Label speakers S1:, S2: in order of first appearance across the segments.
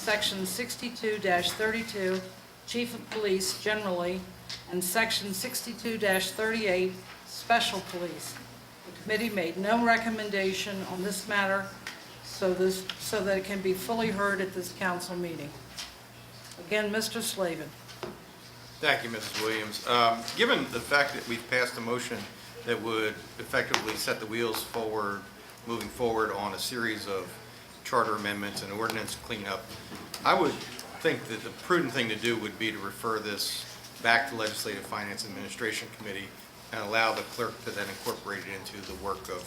S1: Section 62-32, Chief of Police generally, and Section 62-38, Special Police. The committee made no recommendation on this matter, so this, so that it can be fully heard at this council meeting. Again, Mr. Slavin.
S2: Thank you, Mrs. Williams. Um, Given the fact that we've passed a motion that would effectively set the wheels forward, moving forward on a series of charter amendments and ordinance cleanup, I would think that the prudent thing to do would be to refer this back to Legislative Finance Administration Committee and allow the clerk to then incorporate it into the work of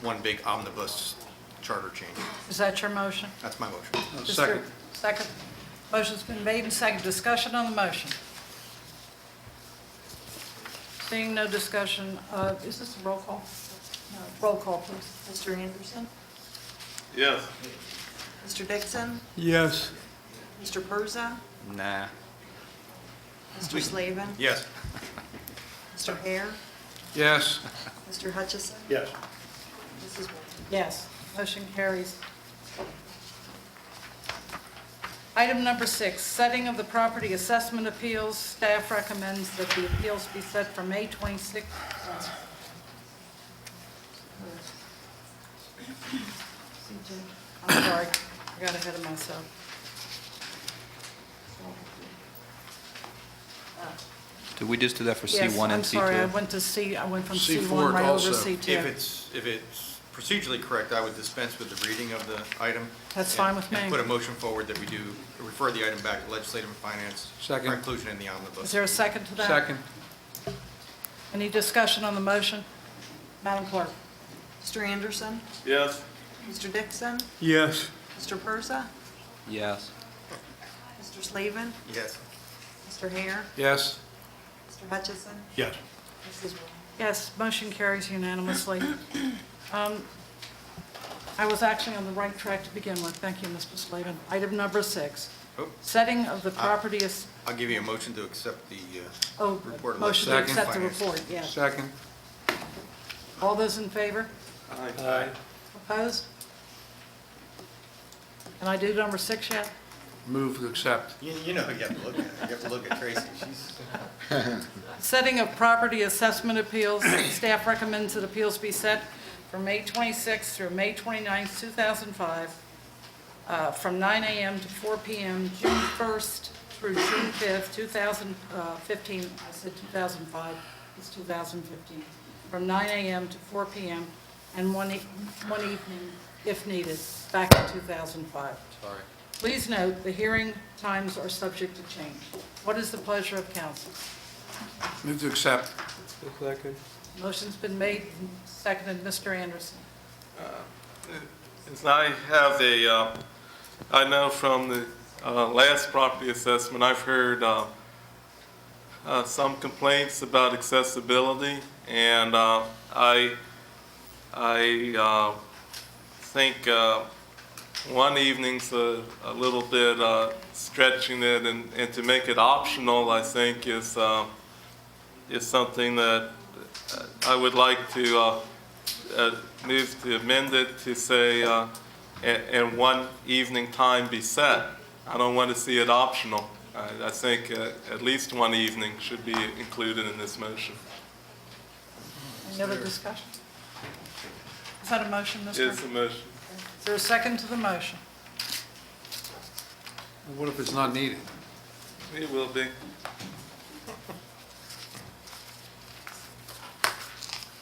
S2: one big omnibus charter change.
S1: Is that your motion?
S2: That's my motion.
S1: Is there- Second. Motion's been made and second. Discussion on the motion. Seeing no discussion, uh, is this a roll call? No. Roll call, please.
S3: Mr. Anderson?
S4: Yes.
S3: Mr. Dixon?
S5: Yes.
S3: Mr. Persa?
S2: Nah.
S3: Mr. Slavin?
S2: Yes.
S3: Mr. Hare?
S5: Yes.
S3: Mr. Hutchison?
S4: Yes.
S3: Mrs. Wolf?
S1: Yes. Motion carries. Item number six, setting of the property assessment appeals. Staff recommends that the appeals be set for May 26th. I'm sorry, I got ahead of myself.
S6: Did we just do that for C1
S1: Yes,
S6: and
S1: I'm sorry, I
S6: C2?
S1: went to C, I went from
S5: C4
S1: C1 right over
S5: also.
S2: If
S1: C2.
S2: it's, if it's procedurally correct, I would dispense with the reading of the item.
S1: That's
S2: and-
S1: fine with me.
S2: And put a motion forward that we do, refer the item back to Legislative and Finance.
S5: Second.
S2: For inclusion in the
S1: Is
S2: omnibus.
S1: there a second to that?
S5: Second.
S1: Any discussion on the motion? Madam Clerk?
S3: Mr. Anderson?
S4: Yes.
S3: Mr. Dixon?
S5: Yes.
S3: Mr. Persa?
S6: Yes.
S3: Mr. Slavin?
S2: Yes.
S3: Mr. Hare?
S5: Yes.
S3: Mr. Hutchison?
S4: Yes.
S3: Mrs. Wolf?
S1: Yes, motion carries unanimously. Um, I was actually on the right track to begin with. Thank you, Mr. Slavin. Item number six,
S2: Oh,
S1: setting of the property is,
S2: I'll give you a motion to accept the, uh,
S1: oh,
S2: Report of
S1: motion to
S5: Second.
S1: accept the
S2: Finance.
S1: report, yes.
S5: Second.
S1: All those in favor?
S2: uh,
S4: Aye.
S1: Opposed? Can I do number six yet?
S5: Move to accept.
S2: you you know, you have to look at, you have to look at Tracy. She's,
S1: Setting of property assessment appeals, staff recommends that appeals be set for May 26th through May 29th, 2005, uh, from 9 a.m. to 4 p.m., June 1st through June 5th, 2015, I said 2005, it's 2015, from 9 a.m. to 4 p.m., and one e- one evening, if needed, back in 2005. Sorry. Please note, the hearing times are subject to change. What is the pleasure of council?
S5: Move to accept.
S1: Motion's been made, and seconded, Mr. Anderson.
S4: And I have a, uh, I know from the uh, last property assessment, I've heard uh, uh, some complaints about accessibility, and uh, I, I uh, think uh, one evening's a a little bit uh, stretching it, and and to make it optional, I think, is, uh, is something that uh, I would like to uh, uh, move to amend it to say, uh, a- and one evening time be set. I don't want to see it optional. I I think uh, at least one evening should be included in this motion.
S1: Any other discussion? Is that a motion, Mr.?
S4: It's a motion.
S1: Is there a second to the motion?
S5: What if it's not needed?
S4: It will be.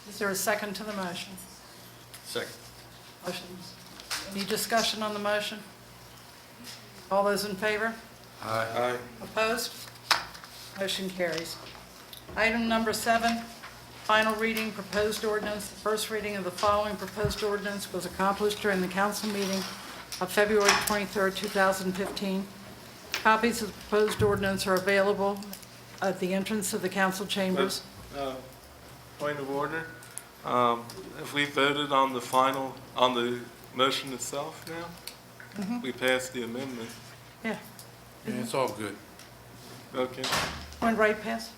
S1: Is there a second to the motion?
S2: second.
S1: Motion's, any discussion on the motion? All those in favor?
S5: Aye.
S4: Aye.
S1: Opposed? Motion carries. Item number seven, final reading, proposed ordinance. The first reading of the following proposed ordinance was accomplished during the council meeting of February 23, 2015. Copies of the proposed ordinance are available at the entrance of the council chambers.
S4: Uh, Point of order. Um, Have we voted on the final, on the motion itself now? We passed the amendment.
S1: Yeah,
S5: Yeah, It's all good.
S4: Okay.
S1: went right past.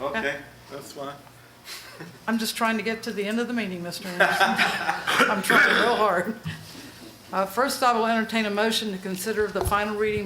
S4: Oh, Okay, that's fine.
S1: I'm just trying to get to the end of the meeting, Mr. Anderson. I'm trying real hard. Uh, First, I will entertain a motion to consider the final reading